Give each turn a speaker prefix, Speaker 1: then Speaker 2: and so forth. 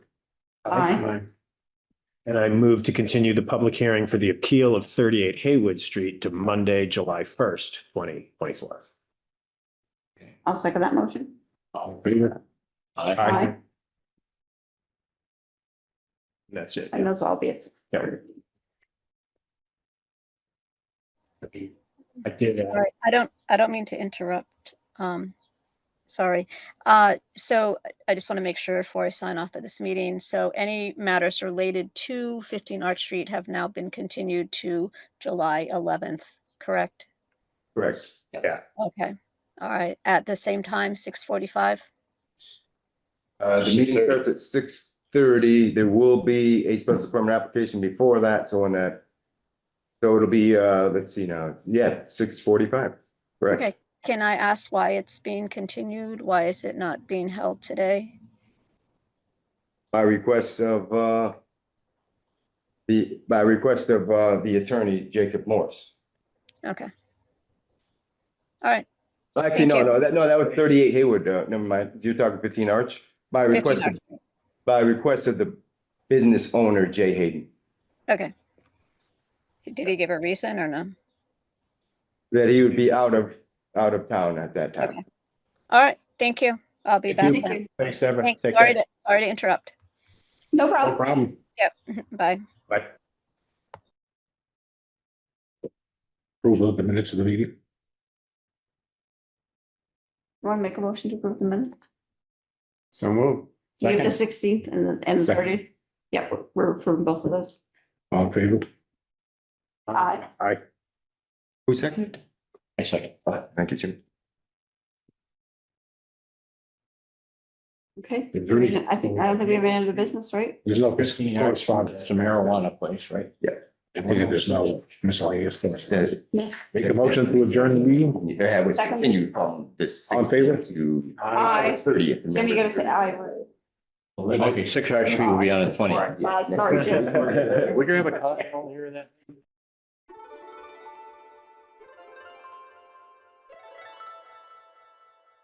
Speaker 1: Aye.
Speaker 2: And I move to continue the public hearing for the appeal of thirty-eight Haywood Street to Monday, July first, twenty twenty-four.
Speaker 1: I'll second that motion.
Speaker 3: All in favor?
Speaker 2: Aye.
Speaker 1: Aye.
Speaker 2: That's it.
Speaker 1: And those all be it's.
Speaker 2: Yeah. I did, uh,
Speaker 4: Sorry, I don't, I don't mean to interrupt. Um, sorry. Uh, so I- I just want to make sure before I sign off at this meeting. So any matters related to fifteen Arch Street have now been continued to July eleventh, correct?
Speaker 2: Correct. Yeah.
Speaker 4: Okay, all right, at the same time, six forty-five?
Speaker 5: Uh, the meeting starts at six thirty. There will be a special permit application before that, so on that. So it'll be, uh, let's see now, yeah, six forty-five, correct?
Speaker 4: Okay, can I ask why it's being continued? Why is it not being held today?
Speaker 5: By request of, uh, the, by request of, uh, the attorney Jacob Morris.
Speaker 4: Okay. All right,
Speaker 5: Actually,
Speaker 4: Thank
Speaker 5: no,
Speaker 4: you.
Speaker 5: no, that, no, that was thirty-eight Hayward, uh, never mind. You're talking fifteen Arch? By
Speaker 4: 15
Speaker 5: request, of- by request of the business owner Jay Hayden.
Speaker 4: okay. Did he give a reason or no?
Speaker 5: That he would be out of, out of town at that time.
Speaker 4: Okay. All right, thank you. I'll be back
Speaker 2: Thank you.
Speaker 4: then.
Speaker 2: Thanks, Deborah.
Speaker 4: Thanks,
Speaker 2: Take
Speaker 4: sorry
Speaker 2: care.
Speaker 4: to, sorry to interrupt.
Speaker 1: No
Speaker 2: No
Speaker 1: problem.
Speaker 2: problem.
Speaker 4: Bye.
Speaker 2: Bye.
Speaker 3: Approval of the minutes of the meeting.
Speaker 1: Want to make a motion to approve the minute?
Speaker 3: So move.
Speaker 1: You have the
Speaker 3: Second.
Speaker 1: sixteenth and the, and the
Speaker 3: Second.
Speaker 1: thirtieth. Yeah, we're- we're approving both of those.
Speaker 3: All in favor?
Speaker 1: Aye.
Speaker 2: Aye.
Speaker 5: Who seconded?
Speaker 3: I second.
Speaker 5: Thank you, Jim.
Speaker 1: Okay.
Speaker 3: Is there any-
Speaker 1: I think, I don't think we have any other business, right?
Speaker 3: There's no correspondence to marijuana place, right?
Speaker 5: Yeah.
Speaker 3: And there's no miscellaneous correspondence.
Speaker 1: No.
Speaker 3: Make a motion to adjourn the meeting.
Speaker 6: If There was
Speaker 1: Second.
Speaker 6: continued from this.
Speaker 3: All in favor?
Speaker 6: 16th To
Speaker 1: Aye.
Speaker 6: thirtieth.
Speaker 1: Jim, you gotta say aye.
Speaker 6: Okay, six hour street will be on the twentieth.
Speaker 1: Aye, Sorry, Jim.
Speaker 6: Would you have a coffee over here in that?